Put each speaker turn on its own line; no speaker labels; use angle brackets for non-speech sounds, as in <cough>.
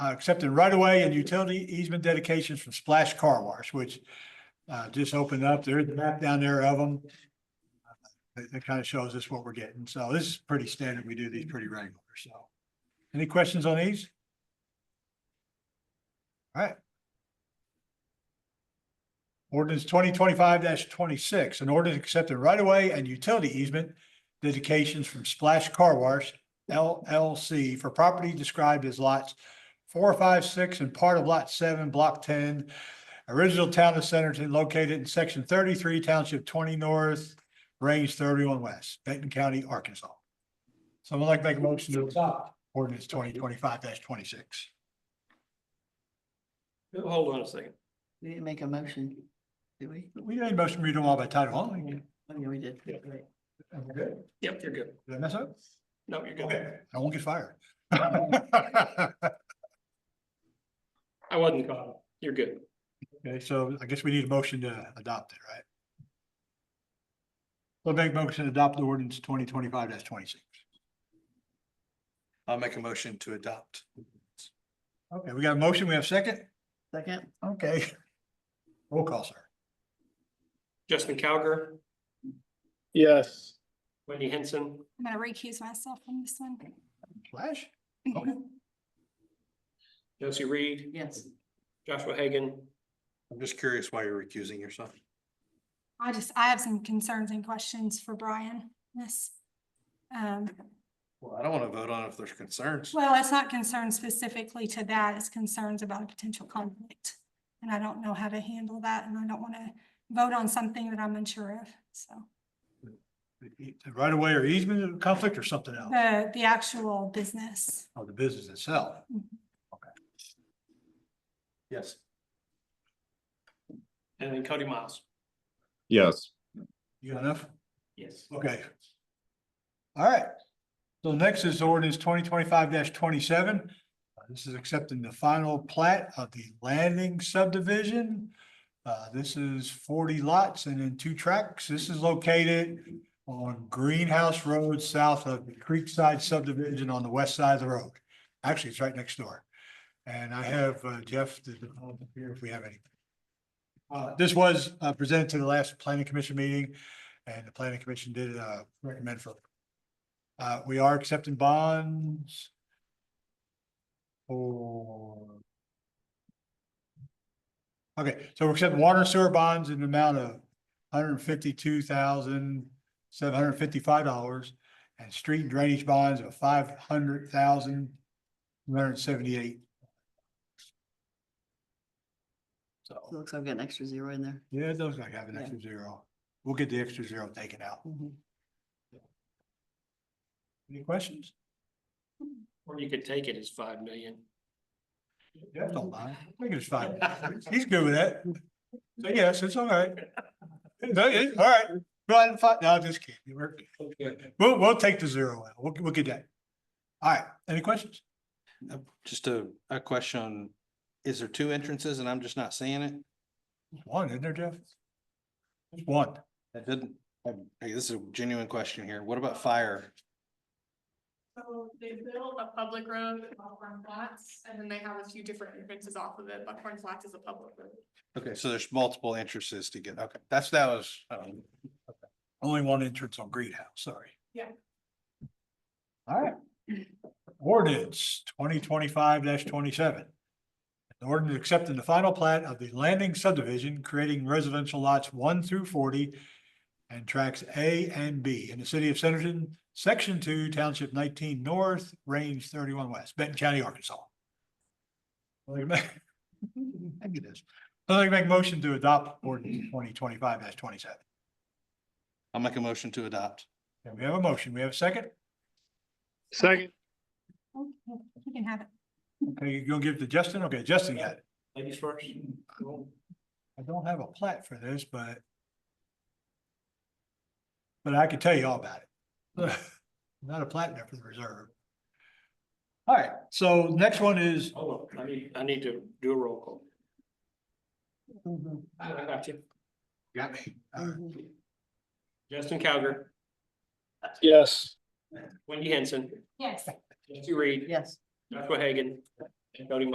uh, accepting right away and utility easement dedications from Splash Car Wash, which uh, just opened up. There's a map down there of them. That, kind of shows us what we're getting. So this is pretty standard. We do these pretty regular, so. Any questions on these? All right. Ordinance twenty twenty-five twenty-six, an ordinance accepting right away and utility easement dedications from Splash Car Wash LLC for property described as lots four, five, six, and part of lot seven, block ten, original town of Centerton located in section thirty-three, township twenty north, range thirty-one west, Benton County, Arkansas. Someone like to make a motion to adopt ordinance twenty twenty-five twenty-six.
Hold on a second.
We didn't make a motion, did we?
We made a motion to read them all by title only.
Oh, yeah, we did.
Yeah.
Right.
Am I good?
Yep, you're good.
Did I mess up?
No, you're good.
Okay, I won't get fired. <laughs>
I wasn't caught. You're good.
Okay, so I guess we need a motion to adopt it, right? We'll make a motion to adopt the ordinance twenty twenty-five twenty-six.
I'll make a motion to adopt.
Okay, we got a motion, we have a second?
Second,
Okay. Roll call, sir.
Justin Cowger,
yes,
Wendy Henson,
I'm gonna recuse myself from this one.
Flash?
Josie Reed,
yes.
Joshua Hagan.
I'm just curious why you're recusing yourself.
<clears throat> I just, I have some concerns and questions for Brian, this. Um,
Well, I don't want to vote on it if there's concerns.
well, it's not concerned specifically to that, it's concerns about a potential conflict. And I don't know how to handle that, and I don't wanna vote on something that I'm unsure of, so.
Right away or easement conflict or something else,
The, the actual business,
of the business itself?
Yes.
And then Cody Miles.
yes.
You got enough?
Yes.
Okay. All right. So next is ordinance twenty twenty-five twenty-seven. Uh, This is accepting the final plat of the landing subdivision. Uh, this is forty lots and in two tracks. This is located on Greenhouse Road, south of the Creekside subdivision on the west side of the road. Actually, it's right next door. And I have uh, Jeff to up here if we have any. Uh, this was uh, presented to the last planning commission meeting. And the planning commission did uh recommend for. Uh, we are accepting bonds. For. Okay, so we're accepting water and sewer bonds in the amount of hundred and fifty-two thousand, seven hundred and fifty-five dollars. And street and drainage bonds of five hundred thousand, one hundred and seventy-eight.
It
So,
Looks like I've got an extra zero in there.
yeah, those like have an
Yeah.
extra zero. We'll get the extra zero taken out.
Mhm.
Any questions?
Or you could take it as five million.
Yeah, don't mind. I think it's fine. He's good with that. So yes, it's all right. No, it- all right. Go ahead and fi- no, I'm just kidding. We're, we'll, we'll take the zero out. We'll, we'll get that. All right. Any questions?
Uh, Just a, a question. Is there two entrances and I'm just not seeing it?
One, isn't there, Jeff? Just One.
That didn't, um, hey, this is a genuine question here. What about fire?
So they built a public road, at Buckhorn Flats, and then they have a few different entrances off of it. Buckhorn Flats is a public road.
Okay, so there's multiple entrances to get, okay, that's, that was, um,
Only one entrance on greenhouse, sorry.
Yeah.
All right. Ordinance twenty twenty-five twenty-seven. An ordinance accepting the final plat of the landing subdivision, creating residential lots one through forty and tracks A and B in the city of Centerton, section two, township nineteen north, range thirty-one west, Benton County, Arkansas. I'd like to <laughs> make- I get this. I'd like to make a motion to adopt ordinance twenty twenty-five twenty-seven.
I'll make a motion to adopt.
Okay, we have a motion. We have a second.
Second,
Oh, you can have it.
Okay, you gonna give it to Justin? Okay, Justin got it.
Ladies first.
I don't have a plat for this, but but I can tell you all about it. <laughs> Not a plat there for the reserve. All right, so next one is,
Hold on, I need, I need to do a roll call.
Mhm,
I got you. Mm-hmm.
got me. All right.
mhm.
Justin Cowger,
yes,
Wendy Henson,
Yes.
Josie Reed,
Yes.
Joshua Hagan, and Cody Miles.